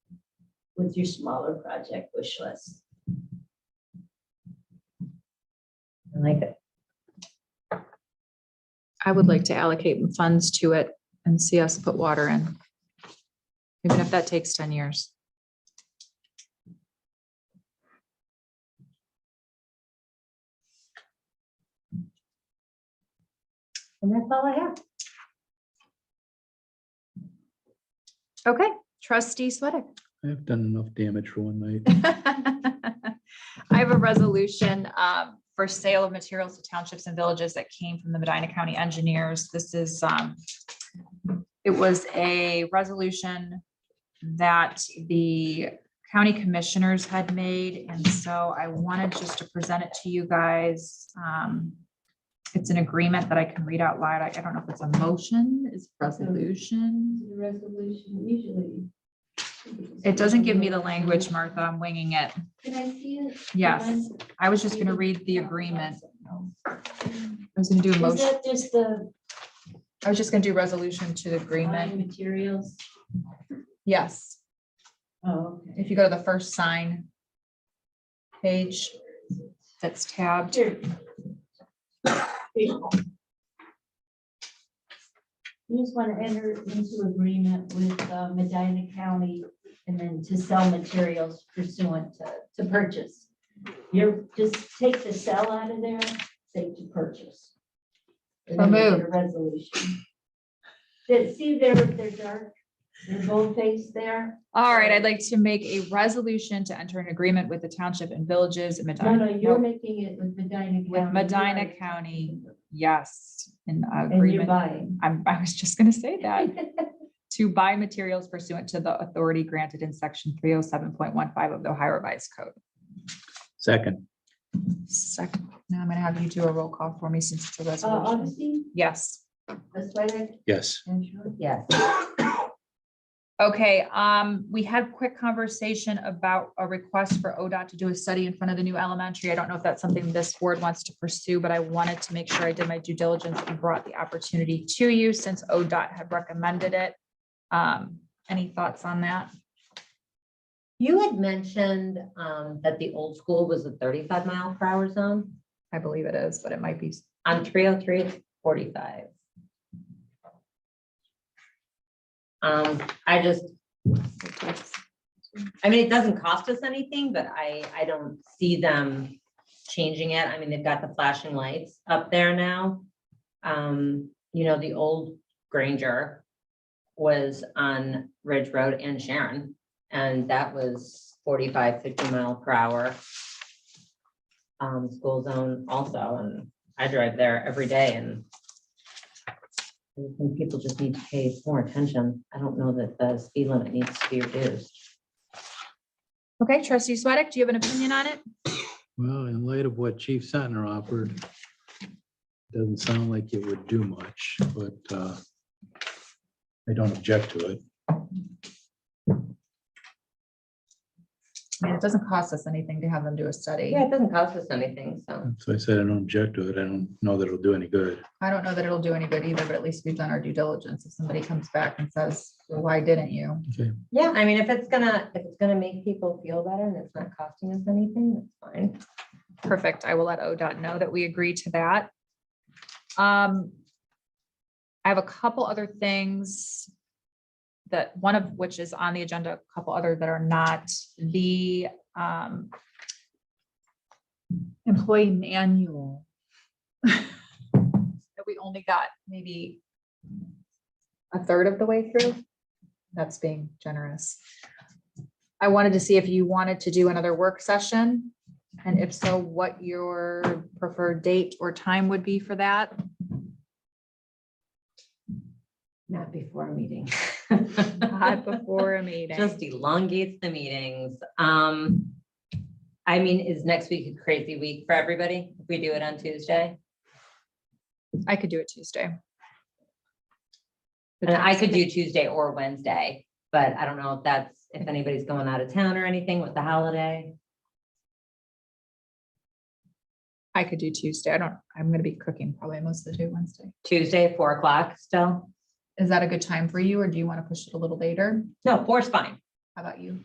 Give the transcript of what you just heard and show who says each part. Speaker 1: with your smaller project wish list.
Speaker 2: I like it.
Speaker 3: I would like to allocate funds to it and see us put water in. Even if that takes ten years.
Speaker 2: And that's all I have.
Speaker 3: Okay, trustee Sweattick.
Speaker 4: I've done enough damage for one night.
Speaker 3: I have a resolution um, for sale of materials to townships and villages that came from the Medina County engineers. This is, um, it was a resolution that the county commissioners had made, and so I wanted just to present it to you guys. Um, It's an agreement that I can read out loud. I I don't know if it's a motion, it's resolution.
Speaker 1: The resolution usually.
Speaker 3: It doesn't give me the language, Martha. I'm winging it.
Speaker 1: Can I see it?
Speaker 3: Yes. I was just gonna read the agreement. I was gonna do a
Speaker 1: Is
Speaker 3: motion,
Speaker 1: that just the
Speaker 3: I was just gonna do resolution to the agreement.
Speaker 1: buying materials?
Speaker 3: Yes,
Speaker 1: Oh, okay.
Speaker 3: if you go to the first sign page that's tabbed.
Speaker 1: Here. Here. You just want to enter into agreement with uh, Medina County and then to sell materials pursuant to, to purchase. You're, just take the sell out of there, say to purchase. And then we'll get a Resolution. Did, see there, they're dark, they're boldface there?
Speaker 3: All right, I'd like to make a resolution to enter an agreement with the township and villages in
Speaker 1: No, no,
Speaker 3: Medina.
Speaker 1: you're
Speaker 3: Nope.
Speaker 1: making it with Medina County.
Speaker 3: With Medina County. Yes, in
Speaker 1: And you're
Speaker 3: agreement.
Speaker 1: buying.
Speaker 3: I'm, I was just gonna say that. To buy materials pursuant to the authority granted in section three oh seven point one five of the Ohio Revised Code.
Speaker 4: Second,
Speaker 3: Second, now I'm gonna have you do a roll call for me since it's a
Speaker 1: Uh,
Speaker 3: resolution.
Speaker 1: Augustine,
Speaker 3: Yes,
Speaker 1: Ms. Swedick,
Speaker 4: yes.
Speaker 1: and Short.
Speaker 2: Yes.
Speaker 3: okay, um, we had a quick conversation about a request for ODOT to do a study in front of the new elementary. I don't know if that's something this board wants to pursue, but I wanted to make sure I did my due diligence and brought the opportunity to you since ODOT had recommended it. Um, any thoughts on that?
Speaker 2: You had mentioned um, that the old school was a thirty-five mile per hour zone.
Speaker 3: I believe it is, but it might be,
Speaker 2: On three oh three, it's forty-five. Um, I just, I mean, it doesn't cost us anything, but I, I don't see them changing it. I mean, they've got the flashing lights up there now. Um, you know, the old Granger was on Ridge Road and Sharon, and that was 45, 50 mile per hour. Um, school zone also, and I drive there every day and I just think people just need to pay more attention. I don't know that the speed limit needs to be reduced.
Speaker 3: okay, trustee Sweattick, do you have an opinion on it?
Speaker 4: Well, in light of what Chief Sentner offered, doesn't sound like it would do much, but uh, I don't object to it.
Speaker 3: I mean, it doesn't cost us anything to have them do a study.
Speaker 2: Yeah, it doesn't cost us anything, so.
Speaker 4: So I said I don't object to it. I don't know that it'll do any good.
Speaker 3: I don't know that it'll do any good either, but at least we've done our due diligence. If somebody comes back and says, "Well, why didn't you?
Speaker 2: Yeah, I mean, if it's gonna, if it's gonna make people feel better and it's not costing us anything, that's fine.
Speaker 3: Perfect. I will let ODOT know that we agree to that. Um, I have a couple other things that, one of which is on the agenda, a couple other that are not. The, um, employee manual that we only got maybe a third of the way through. That's being generous. I wanted to see if you wanted to do another work session and if so, what your preferred date or time would be for that?
Speaker 2: Not before a meeting.
Speaker 3: Not before a meeting.
Speaker 2: Just elongates the meetings. Um, I mean, is next week a crazy week for everybody if we do it on Tuesday?
Speaker 3: I could do it Tuesday.
Speaker 2: And I could do Tuesday or Wednesday, but I don't know if that's, if anybody's going out of town or anything with the holiday.
Speaker 3: I could do Tuesday. I don't, I'm gonna be cooking probably most of the day Wednesday.
Speaker 2: Tuesday, four o'clock still?
Speaker 3: Is that a good time for you or do you want to push it a little later?
Speaker 2: No, four's fine.
Speaker 3: How about you?